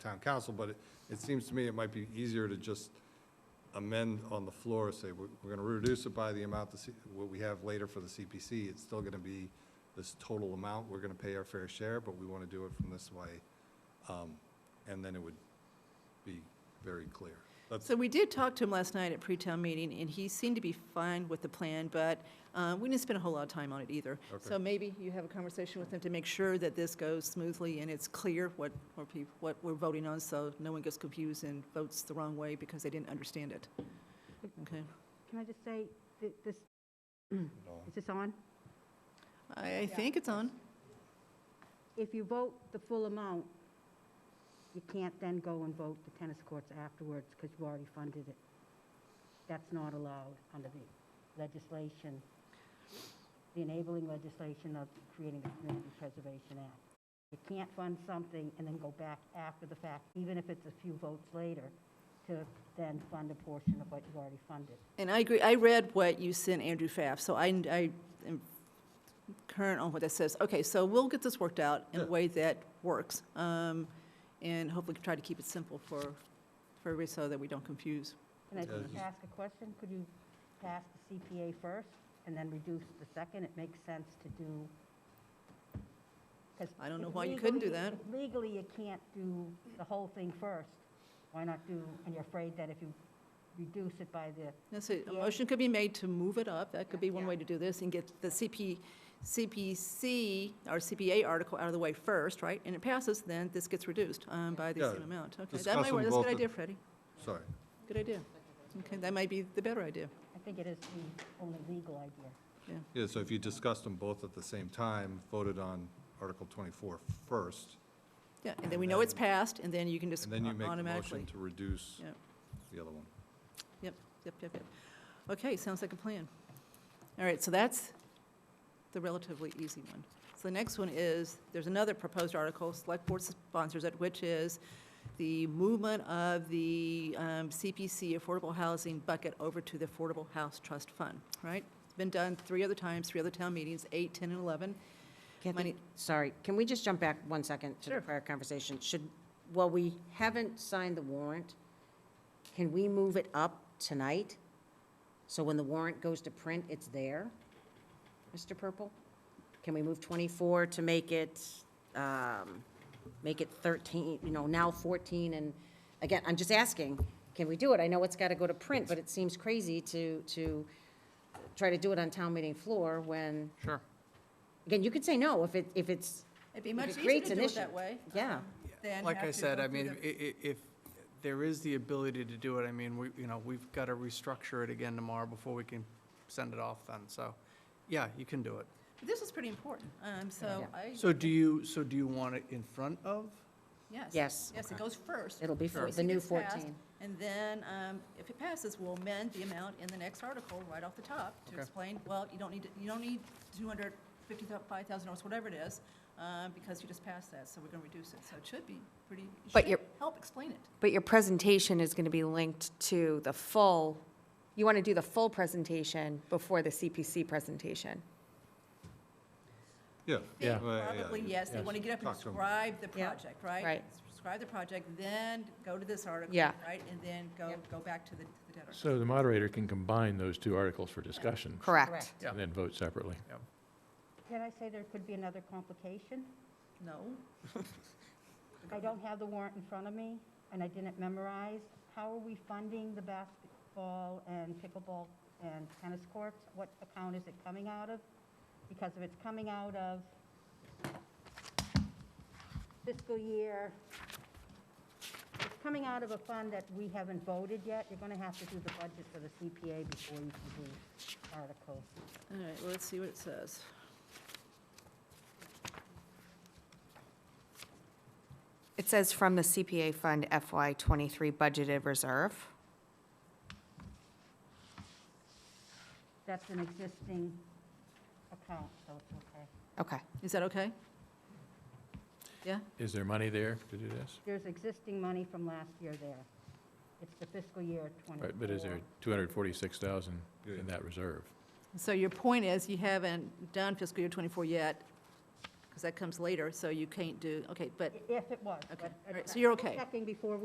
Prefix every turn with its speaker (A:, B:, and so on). A: town council, but it, it seems to me it might be easier to just amend on the floor, say, we're, we're gonna reduce it by the amount, the, C- what we have later for the CPC, it's still gonna be this total amount, we're gonna pay our fair share, but we wanna do it from this way. Um, and then it would be very clear. That's,
B: So we did talk to him last night at pre-town meeting, and he seemed to be fine with the plan, but uh, we didn't spend a whole lot of time on it either. So
A: Okay.
B: maybe you have a conversation with him to make sure that this goes smoothly and it's clear what, what peop- what we're voting on, so no one gets confused and votes the wrong way because they didn't understand it. Okay?
C: Can I just say, thi- this, is this on?
B: I, I think it's on.
C: If you vote the full amount, you can't then go and vote the tennis courts afterwards because you've already funded it. That's not allowed under the legislation, the enabling legislation of creating the Community Preservation Act. You can't fund something and then go back after the fact, even if it's a few votes later, to then fund a portion of what you've already funded.
B: And I agree, I read what you sent Andrew Pfaff, so I, I am current on what that says. Okay, so we'll get this worked out in a
A: Yeah.
B: way that works, um, and hopefully try to keep it simple for, for everybody so that we don't confuse.
C: Can I just
A: Yeah, just-
C: ask a question? Could you pass the CPA first and then reduce the second? It makes sense to do, because.
B: I don't know why you couldn't do that.
C: Legally, you can't do the whole thing first. Why not do, and you're afraid that if you reduce it by the,
B: That's it. a
C: Yeah.
B: motion could be made to move it up, that could be one
C: Yeah.
B: way to do this, and get the CP, CPC, or CPA article out of the way first, right? And it passes, then this gets reduced, um, by the
A: Yeah.
B: same amount. Okay, that
A: Discuss
B: might work,
A: them
B: that's a
A: both
B: good
A: at-
B: idea, Freddie,
A: sorry.
B: good idea. Okay, that might be the better idea,
C: I think it is the only legal idea.
B: yeah.
A: Yeah, so if you discussed them both at the same time, voted on Article 24 first,
B: Yeah, and then we know it's passed, and then you can just
A: and then you make the
B: automatically.
A: motion to reduce
B: Yeah.
A: the other one.
B: Yep, yep, yep, yep. Okay, sounds like a plan. All right, so that's the relatively easy one. So the next one is, there's another proposed article, Select Board sponsors it, which is the movement of the um, CPC Affordable Housing bucket over to the Affordable House Trust Fund, right? It's been done three other times, three other town meetings, eight, 10, and 11. Money-
D: Kathy, sorry, can we just jump back one second to
B: Sure.
D: the prior conversation? Should, well, we haven't signed the warrant, can we move it up tonight? So when the warrant goes to print, it's there? Mr. Purple? Can we move 24 to make it, um, make it 13, you know, now 14? And again, I'm just asking, can we do it? I know it's got to go to print, but it seems crazy to, to try to do it on town meeting floor when
E: Sure.
D: Again, you could say no if it, if it's,
B: It'd be
D: If
B: much
D: it
B: easier
D: creates
B: to
D: an
B: do it
D: issue.
B: that way.
D: Yeah.
B: um, than
E: Like
B: have
E: I
B: to
E: said,
B: go
E: I
B: through
E: mean,
B: the-
E: i- i- if there is the ability to do it, I mean, we, you know, we've got to restructure it again tomorrow before we can send it off then, so, yeah, you can do it.
B: This is pretty important, um, so
D: Yeah.
B: I,
E: So do you, so do you want it in front of?
B: yes.
D: Yes.
B: Yes, it goes first.
D: it'll be
B: So
D: for
B: if
D: the
B: it
D: new
B: gets passed,
D: 14.
B: And then, um, if it passes, we'll amend the amount in the next article right off the top to
E: Okay.
B: explain, well, you don't need, to- you don't need two hundred fifty, five thousand dollars, whatever it is, um, because you just passed that, so we're gonna reduce it, so it should be pretty, it
F: But
B: should
F: you're-
B: help explain it.
F: But your presentation is going to be linked to the full, you want to do the full presentation before the CPC presentation.
A: Yeah.
B: think
A: Well, yeah,
B: Probably,
A: you-
B: yes, they
A: yeah.
B: want to get up and
A: Talk to 'em.
B: describe the
D: Yeah.
B: project, right?
F: Right.
B: Describe the project, then go to this article.
F: Yeah.
B: Right, and then go, go back to the to the debtor.
G: So the moderator can combine those two articles for discussion
F: Correct.
D: Correct.
E: Yeah.
G: and then vote separately.
C: Did I say there could be another complication?
B: No?
C: I don't have the warrant in front of me, and I didn't memorize. How are we funding the basketball and pickleball and tennis courts? What account is it coming out of? Because if it's coming out of fiscal year, it's coming out of a fund that we haven't voted yet, you're going to have to do the budget for the CPA before you can do articles.
B: All right, well, let's see what it says.
F: It says from the CPA Fund FY '23 budgeted reserve.
C: That's an existing account, so it's okay.
F: Okay.
B: Is that okay? Yeah?
G: Is there money there to do this?
C: There's existing money from last year there. It's the fiscal year 24.
G: Right, but is there 246,000 in that reserve?
B: So your point is, you haven't done fiscal year '24 yet, because that comes later, so you can't do, okay, but
C: If it was.
B: Okay.
C: but-
B: All right, so you're okay?
C: Checking before we